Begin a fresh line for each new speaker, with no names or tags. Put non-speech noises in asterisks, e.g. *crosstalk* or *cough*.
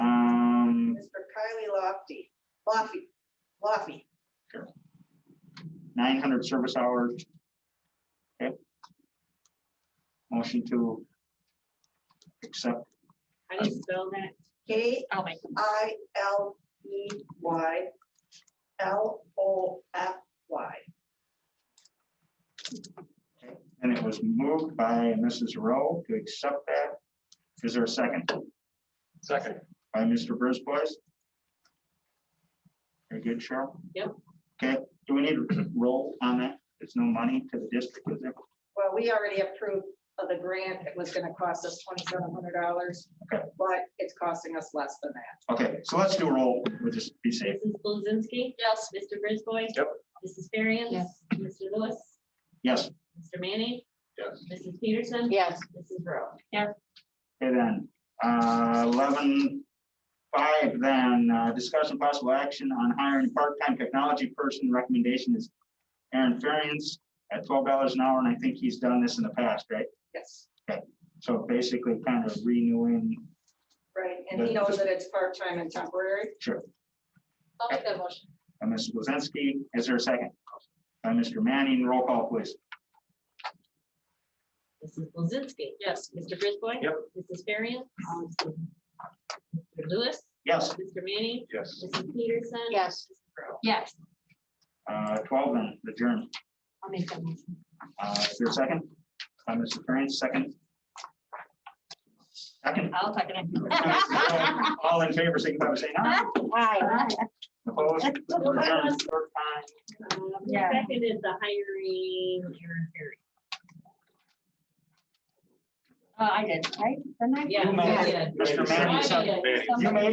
Um,
Lofty, Lofty, Lofty.
nine hundred service hours. Okay. Motion to accept,
How do you spell that?
K
Oh, my.
I L E Y L O F Y.
and it was moved by Mrs. Rowe to accept that. Is there a second
Second.
by Mr. Brisbois? Very good, Cheryl?
Yep.
Okay, do we need a roll on that? There's no money to the district, is there?
Well, we already approved of the grant. It was gonna cost us twenty-seven hundred dollars,
Okay.
but it's costing us less than that.
Okay, so let's do a roll, we'll just be safe.
Mrs. Blazinski? Yes. Mr. Brisboy?
Yep.
Mrs. Ferriens?
Yes.
Mr. Lewis?
Yes,
Mr. Manning?
Yes.
Mrs. Peterson?
Yes.
Mrs. Rowe?
Okay, then, uh, eleven five, then, uh, discussion possible action on hiring a part-time technology person, recommendation is Aaron Ferriens at twelve dollars an hour, and I think he's done this in the past, right?
Yes,
So basically kind of renewing,
right. And he knows that it's part-time and temporary.
sure,
I'll make that motion.
by Mrs. Blazinski, is there a second? By Mr. Manning, roll call, please.
Mrs. Blazinski? Yes. Mr. Brisboy?
Yep.
Mrs. Ferriens? Mr. Lewis?
Yes,
Mr. Manning?
Yes.
Mrs. Peterson?
Yes. Yes.
uh, twelve then, adjourn.
I'll make that motion.
Uh, is there a second? By Mr. Ferriens, second. Second.
I'll second it.
All in favor, signify by saying aye.
*laughs*
Opposed? We're adjourned. Third time.
Um,
Yeah.
Second is the hiring Aaron Ferriens.
Uh, I did, right? Didn't I?
Yeah.
made it.
yeah.
Mr. Manning,
I
second.
did.
Manning.
You made